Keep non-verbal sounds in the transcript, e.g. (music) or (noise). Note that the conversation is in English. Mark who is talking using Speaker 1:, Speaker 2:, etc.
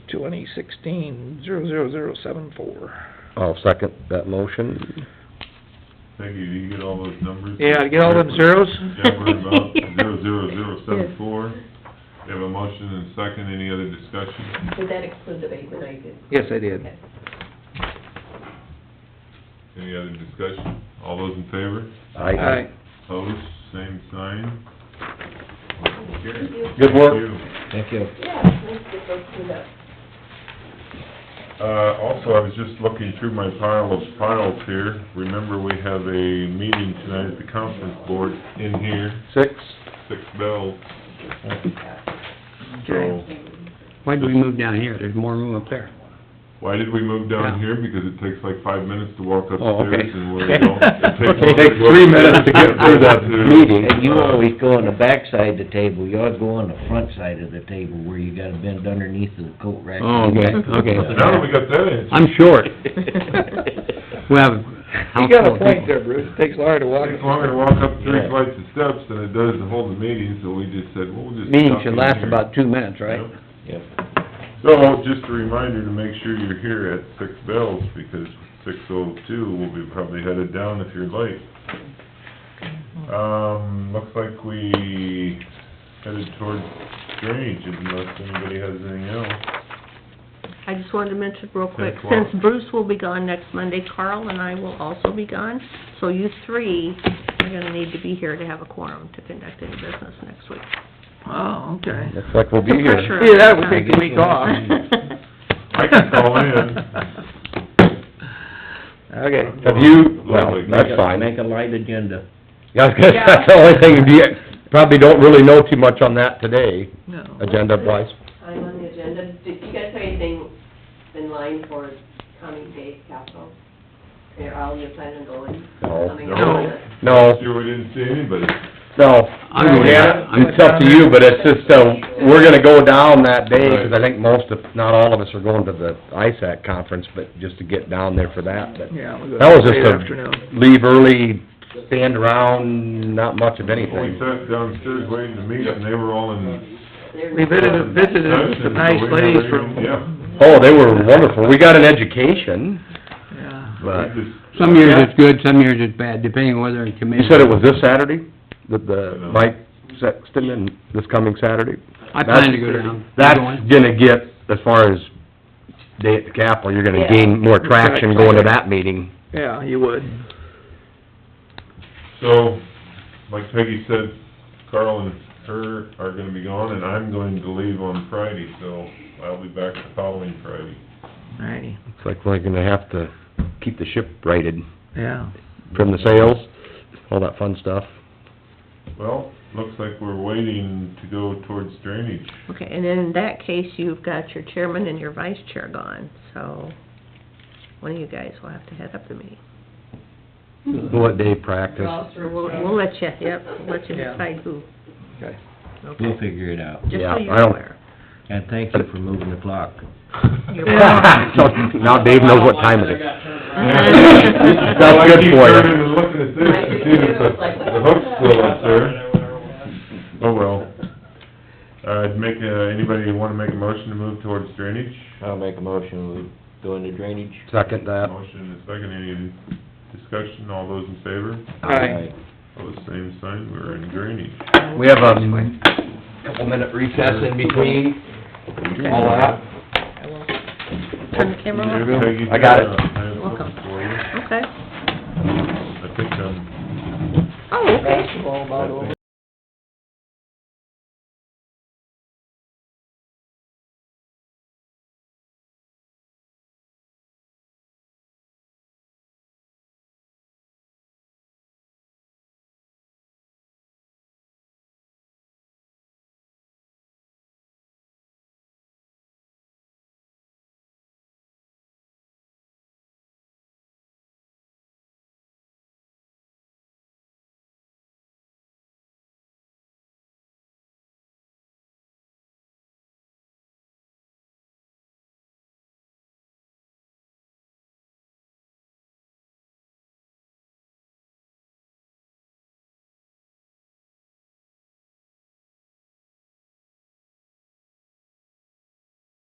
Speaker 1: twenty sixteen zero zero zero seven four.
Speaker 2: I'll second that motion.
Speaker 3: Peggy, do you get all those numbers?
Speaker 1: Yeah, get all them zeros?
Speaker 3: Yeah,
Speaker 1: (laughs)
Speaker 3: we're about zero, zero, zero, seven, four. We have a motion and second, any other discussion?
Speaker 4: Did that exclude the bank that I did?
Speaker 1: Yes, I did.
Speaker 4: Okay.
Speaker 3: Any other discussion? All those in favor?
Speaker 1: Aye.
Speaker 3: Opposed, same sign?
Speaker 4: Thank you.
Speaker 2: Good work.
Speaker 3: Thank you.
Speaker 2: Thank you.
Speaker 4: Yeah, nice to get those cleaned up.
Speaker 3: Uh, also, I was just looking through my pile of files here. Remember, we have a meeting tonight at the conference board in here,
Speaker 2: Six,
Speaker 3: six bells. So,
Speaker 5: Okay. Why did we move down here? There's more room up there.
Speaker 3: why did we move down here?
Speaker 5: Yeah.
Speaker 3: Because it takes like five minutes to walk
Speaker 2: Oh, okay.
Speaker 3: upstairs
Speaker 2: (laughs)
Speaker 3: and (laughs) we're, you know,
Speaker 2: It takes three minutes to get through
Speaker 3: (laughs)
Speaker 2: that meeting.
Speaker 6: And you always go on the backside of the table, you ought to go on the front side of the table where you gotta bend underneath the coat rack.
Speaker 5: Oh, okay, okay.
Speaker 3: (laughs) Now that we got that in.
Speaker 5: I'm short. We have a
Speaker 1: You
Speaker 5: house
Speaker 1: got
Speaker 5: full
Speaker 1: a
Speaker 5: of
Speaker 1: point
Speaker 5: people.
Speaker 1: there, Bruce. It takes Laura to walk.
Speaker 3: Takes longer to walk up three flights of steps than it does to hold the meeting, so we just said, well, we'll just.
Speaker 5: Meeting
Speaker 3: stop
Speaker 5: should
Speaker 3: in
Speaker 5: last
Speaker 3: here.
Speaker 5: about two minutes, right?
Speaker 3: Yep. So, just a reminder to make sure you're here at six bells, because six oh two will be probably headed down if you're late. Um, looks like we headed towards drainage, unless anybody has anything else.
Speaker 7: I just wanted to mention real quick,
Speaker 3: Yes, well-
Speaker 7: since Bruce will be gone next Monday, Carl and I will also be gone. So you three are gonna need to be here to have a quorum to conduct any business next week.
Speaker 1: Oh, okay.
Speaker 2: looks like we'll be
Speaker 7: The
Speaker 2: here.
Speaker 7: pressure.
Speaker 1: Yeah, that would take a week (laughs) off.
Speaker 3: I can call in.
Speaker 1: (laughs) Okay.
Speaker 2: (laughs) Have you, well,
Speaker 3: Lovely.
Speaker 2: that's fine.
Speaker 6: Make a light agenda.
Speaker 2: Yeah, I was gonna say, (laughs) that's the only thing, you probably don't really know too much on that today,
Speaker 1: No.
Speaker 2: agenda wise.
Speaker 4: I'm on the agenda. Did you guys have anything in line for coming day capital? Or all your planning going?
Speaker 2: No.
Speaker 4: Coming
Speaker 3: No.
Speaker 4: up?
Speaker 2: No,
Speaker 3: Sure, we didn't see anybody.
Speaker 2: no.
Speaker 5: I'm with you.
Speaker 2: Yeah, It's up to you, but it's just, uh, we're gonna go down that day, 'cause I think most of, not all of us are going to the ISAC conference, but just to get down there for that, but
Speaker 1: Yeah. we'll go
Speaker 2: that was
Speaker 1: late
Speaker 2: just
Speaker 1: Afternoon.
Speaker 2: a leave early, stand around, not much of
Speaker 3: We
Speaker 2: anything.
Speaker 3: sat downstairs waiting to meet, and they were all in.
Speaker 4: They're-
Speaker 1: We
Speaker 3: Uh,
Speaker 1: visited, visited some nice ladies from,
Speaker 3: Yeah.
Speaker 2: Oh, they were wonderful. We got an education,
Speaker 1: yeah.
Speaker 2: but...
Speaker 3: We just-
Speaker 5: Some years it's good, some years it's bad, depending on whether it's committed.
Speaker 2: You said it was this Saturday, that the, Mike Sexton and this coming Saturday?
Speaker 5: I plan to go down.
Speaker 2: That's
Speaker 5: You going?
Speaker 2: gonna get, as far as day at the Capitol, you're gonna gain more traction going to that meeting.
Speaker 1: Yeah, you would.
Speaker 3: So, like Peggy said, Carl and her are gonna be gone, and I'm going to leave on Friday, so I'll be back the following Friday.
Speaker 1: Alrighty,
Speaker 2: It's like we're gonna have to keep the ship righted
Speaker 1: yeah.
Speaker 2: from the sales, all that fun stuff.
Speaker 3: Well, looks like we're waiting to go towards
Speaker 2: (laughs)
Speaker 3: drainage.
Speaker 7: Okay, and then in that case, you've got your chairman and your vice chair gone, so one of you guys will have to head up the meeting.
Speaker 2: What day practice? (laughs)
Speaker 4: Ross or
Speaker 7: We'll,
Speaker 4: Ross.
Speaker 7: we'll let you, yep, we'll let you
Speaker 1: Yeah.
Speaker 7: decide who,
Speaker 6: We'll figure it out.
Speaker 7: just
Speaker 2: Yeah,
Speaker 7: so you're
Speaker 2: I don't-
Speaker 7: aware.
Speaker 6: And thank you for moving the clock.
Speaker 7: You're
Speaker 2: So, Now Dave knows what time
Speaker 7: (laughs)
Speaker 2: it is.
Speaker 3: I
Speaker 2: good
Speaker 3: keep
Speaker 2: for you.
Speaker 3: turning and looking at this to see if the the hook's still up there. Oh, well. Uh, make, uh, anybody wanna make a motion to move towards drainage?
Speaker 6: I'll make a motion, we go into drainage.
Speaker 2: (laughs) Second that.
Speaker 3: Motion and a second, any discussion, all those in favor?
Speaker 1: Aye.
Speaker 3: Pose Oh, same sign, we're in drainage.
Speaker 2: We have a couple minute recess in between, all that.
Speaker 7: I will Turn the camera
Speaker 2: There
Speaker 7: on,
Speaker 2: you go.
Speaker 3: Peggy,
Speaker 2: I got it.
Speaker 3: uh, I have something
Speaker 7: Welcome.
Speaker 3: for you.
Speaker 7: okay.
Speaker 3: I think, um,
Speaker 7: Oh, okay.
Speaker 1: Basketball about over.